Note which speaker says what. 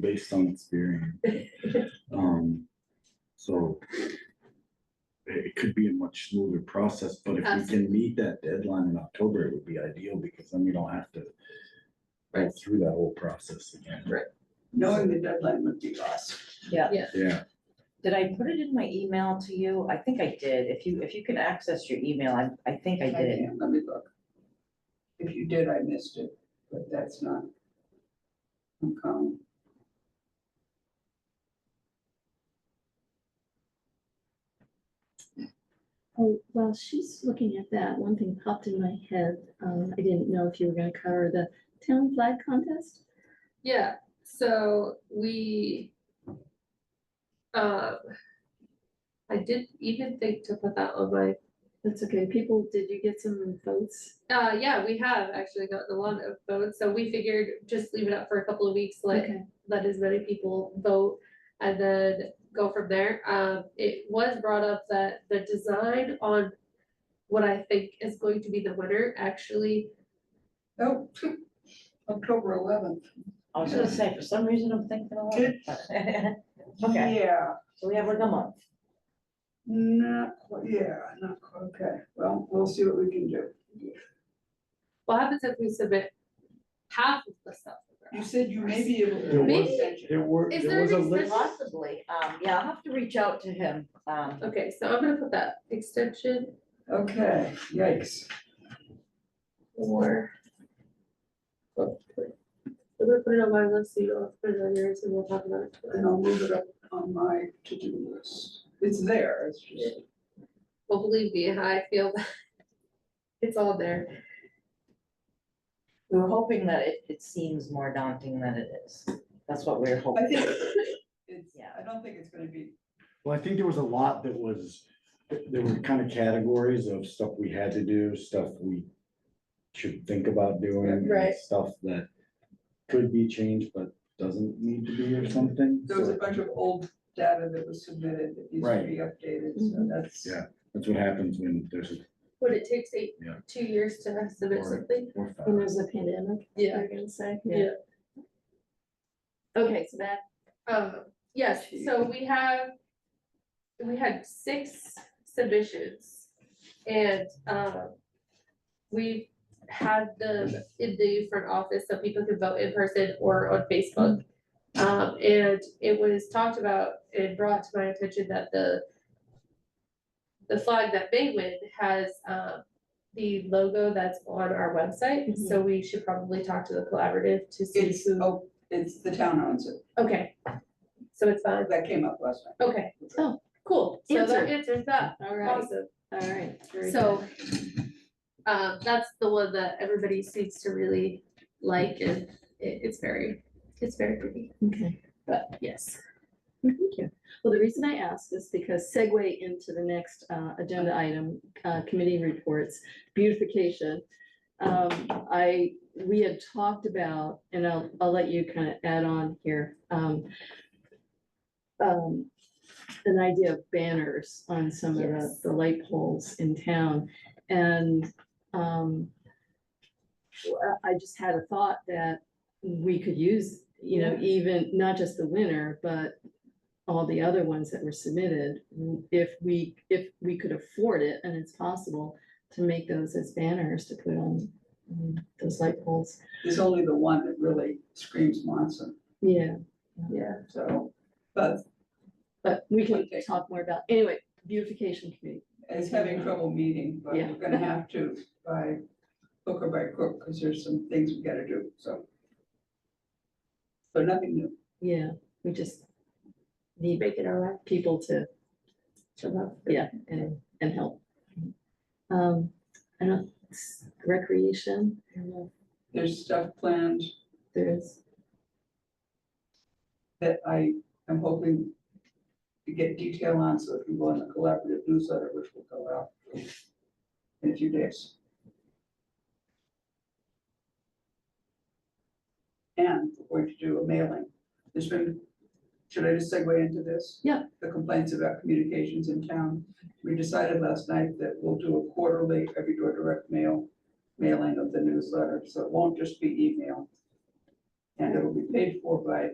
Speaker 1: based on experience. Um, so it it could be a much smoother process, but if we can
Speaker 2: Absolutely.
Speaker 1: meet that deadline in October, it would be ideal because then we don't have to go
Speaker 2: Right.
Speaker 1: through that whole process again.
Speaker 3: knowing the deadline would be awesome.
Speaker 1: Yeah,
Speaker 4: Did I put it in my email to you? I think I did. If you, if you can access your email, I, I think I
Speaker 3: I
Speaker 4: did.
Speaker 3: can't, let me look. If you did, I missed it, but that's not. uncommon.
Speaker 5: Oh, while she's looking at that, one thing popped in my head. Um, I didn't know if you were gonna cover the town flag contest.
Speaker 2: Yeah, so we. Uh. I did even think to put that on my,
Speaker 5: That's okay. People, did you get some votes?
Speaker 2: uh, yeah, we have actually gotten a lot of votes, so we figured just leave it up for a couple of weeks, let
Speaker 5: Okay.
Speaker 2: let as many people vote and then go from there. Um, it was brought up that the design on what I think is going to be the winner actually,
Speaker 3: Oh, October eleventh.
Speaker 4: I was gonna say, for some reason, I'm thinking a lot. Okay,
Speaker 3: Yeah,
Speaker 4: so we have like a month.
Speaker 3: not, qu- yeah, not, qu- okay, well, we'll see what we can do.
Speaker 2: what happens if we submit half of the stuff?
Speaker 3: You said you may be able
Speaker 1: There
Speaker 3: to.
Speaker 2: was-
Speaker 1: there were,
Speaker 2: Is
Speaker 1: there
Speaker 2: there
Speaker 1: was a
Speaker 2: an
Speaker 1: list.
Speaker 2: extension?
Speaker 4: Possibly, um, yeah, I'll have to reach out to him, um.
Speaker 2: Okay, so I'm gonna put that extension
Speaker 3: Okay, yikes.
Speaker 2: or. Well, wait. I'm gonna put it on my list, so you don't have to put it on yours, and we'll talk about it.
Speaker 3: And
Speaker 2: tomorrow.
Speaker 3: I'll move it up on my to-do list. It's there, it's just,
Speaker 2: Well, believe me, I feel that it's all there.
Speaker 4: We were hoping that it, it seems more daunting than it is. That's what we we're
Speaker 3: I
Speaker 4: hoping.
Speaker 3: think it's,
Speaker 4: Yeah.
Speaker 3: I don't think it's gonna be,
Speaker 1: Well, I think there was a lot that was, there were kind of categories of stuff we had to do, stuff we should think about doing. and
Speaker 2: Right.
Speaker 1: Stuff that could be changed but doesn't need to be or something.
Speaker 3: there was a
Speaker 1: So
Speaker 3: bunch of old data that was submitted that needs to
Speaker 1: Right.
Speaker 3: be updated, so that's.
Speaker 1: Yeah. That's what happens when there's a.
Speaker 2: What it takes eight,
Speaker 1: Yeah.
Speaker 2: two years to submit
Speaker 1: Or-
Speaker 2: something?
Speaker 1: or
Speaker 5: When
Speaker 1: five.
Speaker 5: there's a pandemic,
Speaker 2: Yeah.
Speaker 5: you're gonna say?
Speaker 2: Yeah.
Speaker 5: Okay, so that,
Speaker 2: Um, yes, so we have, we had six submissions. And, um, we had them in the front office so people could vote in person or on Facebook. Um, and it was talked about and brought to my attention that the the flag that they win has, um, the logo that's on our website, so we should probably talk to the collaborative to see who.
Speaker 3: It's, oh, it's the town owns it,
Speaker 2: Okay, so it's fine,
Speaker 3: that came up last night.
Speaker 2: okay.
Speaker 5: Oh.
Speaker 2: Cool, so that answers that,
Speaker 5: all right,
Speaker 2: awesome,
Speaker 5: all right. very
Speaker 2: so.
Speaker 5: good.
Speaker 2: Um, that's the one that everybody seems to really like and it, it's very, it's very pretty,
Speaker 5: Okay.
Speaker 2: but yes.
Speaker 5: Thank you. Well, the reason I ask is because segue into the next uh, agenda item, uh, committee reports, beautification. Um, I, we had talked about, and I'll, I'll let you kind of add on here. um, um, An idea of banners on some of the,
Speaker 4: Yes.
Speaker 5: the light poles in town. And um, I I just had a thought that we could use, you know, even, not just the winner, but all the other ones that were submitted, w- if we, if we could afford it, and it's possible to make those as banners to put on um, those light poles.
Speaker 3: There's only the one that really screams Monson,
Speaker 5: Yeah,
Speaker 2: Yeah.
Speaker 3: so, but
Speaker 5: but we can
Speaker 3: Okay.
Speaker 5: talk more about, anyway, beautification committee.
Speaker 3: it's having trouble meeting, but
Speaker 5: Yeah.
Speaker 3: we're gonna have to by hook or by crook, because there's some things we gotta do, so. But nothing new.
Speaker 5: Yeah, we just need
Speaker 2: Make it our life,
Speaker 5: people to,
Speaker 2: to love.
Speaker 5: yeah, and, and help. Um, I don't, s- recreation, I don't know if
Speaker 3: There's stuff planned
Speaker 5: there's,
Speaker 3: that I am hoping to get detail on, so it can go in the collaborative newsletter, which will go out in a few days. And we're going to do a mailing. There's been, should I just segue into this?
Speaker 5: Yeah.
Speaker 3: The complaints about communications in town. We decided last night that we'll do a quarterly every door direct mail mailing of the newsletter, so it won't just be email. And it will be paid for by